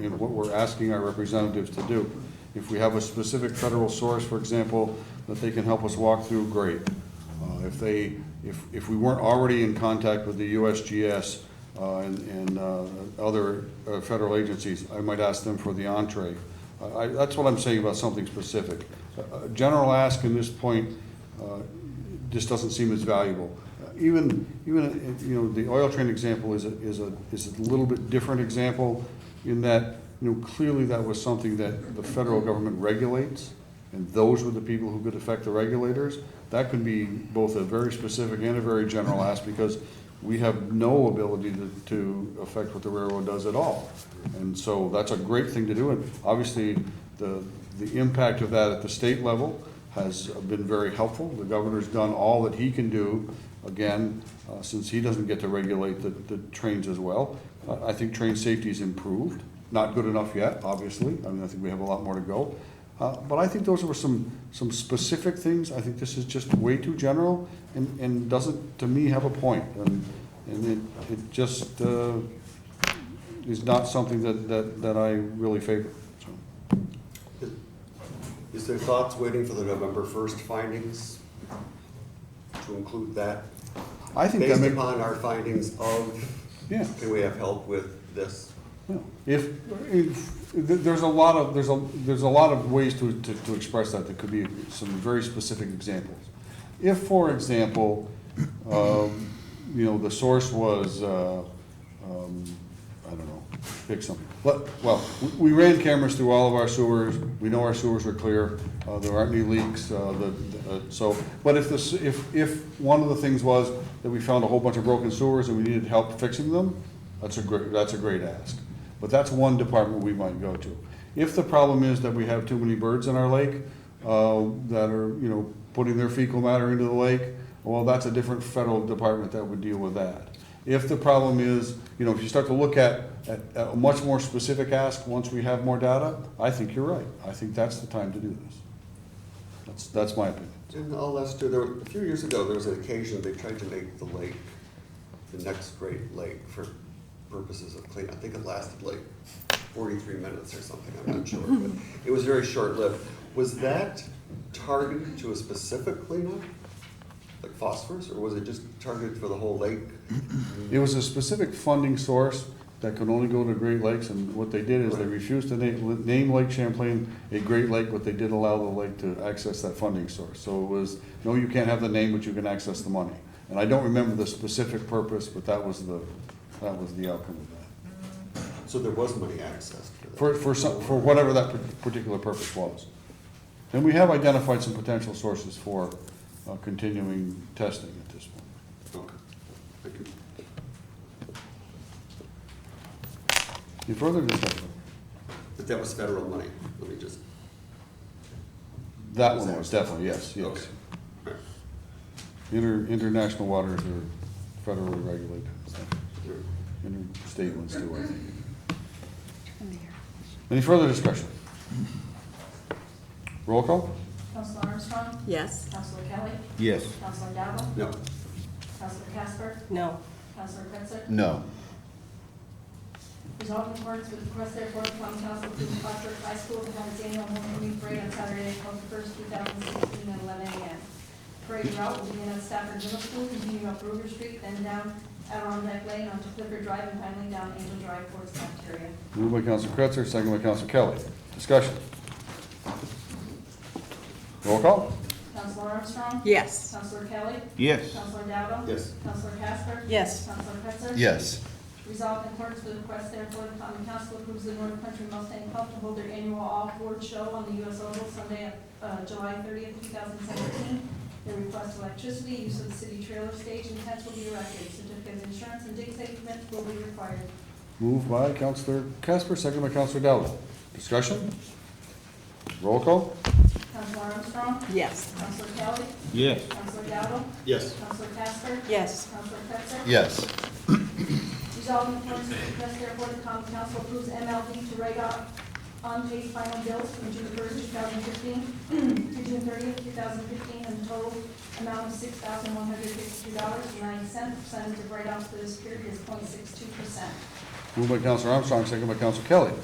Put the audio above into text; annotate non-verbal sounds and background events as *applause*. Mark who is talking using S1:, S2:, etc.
S1: you know, what we're asking our representatives to do. If we have a specific federal source, for example, that they can help us walk through, great. Uh, If they, if, if we weren't already in contact with the USGS uh, and, and uh, other uh, federal agencies, I might ask them for the entree. I- I, that's what I'm saying about something specific. A- a General ask in this point uh, just doesn't seem as valuable. Uh, Even, even, uh, you know, the oil train example is a, is a, is a little bit different example in that, you know, clearly that was something that the federal government regulates, and those were the people who could affect the regulators. That could be both a very specific and a very general ask, because we have no ability to, to affect what the railroad does at all. And so that's a great thing to do, and obviously, the, the impact of that at the state level has been very helpful. The governor's done all that he can do, again, uh, since he doesn't get to regulate the, the trains as well. Uh, I- I think train safety's improved, not good enough yet, obviously, I mean, I think we have a lot more to go. Uh, But I think those were some, some specific things, I think this is just way too general and, and doesn't, to me, have a point. And, and it, it just uh, is not something that, that, that I really favor, so.
S2: Is there thoughts waiting for the November first findings to include that?
S1: I think that
S2: Based
S1: makes.
S2: upon our findings of,
S1: Yeah,
S2: can we have help with this?
S1: yeah. If, if, th- there's a lot of, there's a, there's a lot of ways to, to, to express that, there could be some very specific examples. If, for example, um, you know, the source was, uh, um, I don't know, pick something. But, well, we- we ran cameras through all of our sewers, we know our sewers are clear, uh, there aren't any leaks, uh, the, the- uh, so, but if this, if, if one of the things was that we found a whole bunch of broken sewers and we needed help fixing them, that's a great, that's a great ask. But that's one department we might go to. If the problem is that we have too many birds in our lake, uh, that are, you know, putting their fecal matter into the lake, well, that's a different federal department that would deal with that. If the problem is, you know, if you start to look at, at at a much more specific ask, once we have more data, I think you're right. I think that's the time to do this. That's, that's my opinion.
S2: And all that's true, there, were- a few years ago, there was an occasion they tried to make the lake, the next great lake for purposes of clean, I think it lasted like forty-three minutes or something, I'm not sure, but it was very short-lived. Was that targeted to a specific cleanup, like phosphorus, or was it just targeted for the whole lake?
S1: It was a specific funding source that could only go to Great Lakes, and what they did is they refused to name, name Lake Champlain a Great Lake, but they did allow the lake to access that funding source. So it was, no, you can't have the name, but you can access the money. And I don't remember the specific purpose, but that was the, that was the outcome of that.
S2: So there was money accessed for that?
S1: For, for some, for whatever that par- particular purpose was. And we have identified some potential sources for uh, continuing testing at this point.
S2: Okay. Thank you.
S1: Any further discussion?
S2: But that was federal money, let me just,
S1: That one was definitely, yes, yes.
S2: okay. All right.
S1: Inter, international waters are federally regulated, so
S2: All right.
S1: interstate ones too, I think. Any further discussion? Roll call?
S3: Counselor Armstrong?
S4: Yes.
S3: Counselor Kelly?
S5: Yes.
S3: Counselor Dowdell?
S2: No,
S3: Counselor Casper?
S4: No.
S3: Counselor Cretzer?
S5: No.
S3: Resolved in accordance with the request therefore of common council to the Foxborough High School to have its annual homecoming parade on Saturday, April first, two thousand sixteen, at eleven AM. Parade route will begin at Stafford Middle School, continue up Ruger Street, then down Adirondack Lane onto Clifford Drive, and finally down Angel Drive towards cafeteria.
S1: Moved by Counsel Kretzer, second by Counsel Kelly. Discussion? Roll call?
S3: Counselor Armstrong?
S4: Yes.
S3: Counselor Kelly?
S5: Yes.
S3: Counselor Dowdell?
S2: Yes.
S3: Counselor Casper?
S4: Yes.
S3: Counselor Cretzer?
S5: Yes.
S3: Resolved in accordance with the request therefore, the common council approves the North Country Mustang Club to hold their annual off-board show on the US Oval Sunday, uh, July thirtieth, two thousand seventeen. They request electricity, use of the city trailer stage, and tents will be erected. Certificate of insurance and dig statement will be required.
S1: Moved by Counselor Casper, second by Counselor Dowdell. Discussion? Roll call?
S3: Counselor Armstrong?
S4: Yes.
S3: Counselor Kelly?
S5: Yes.
S3: Counselor Dowdell?
S2: yes,
S3: Counselor Casper?
S4: Yes.
S3: Counselor Cretzer?
S5: Yes.
S3: Resolved in accordance with the request therefore, the common council approves MLD to write off unpaid final bills from June first, two thousand fifteen, *clears throat* to June thirtieth, two thousand fifteen, and total amount of six thousand one hundred fifty-two dollars and ninety cents. Percentage of write-offs for this period is 0.62 percent.
S1: Moved by Counselor Armstrong, second by Counselor Kelly.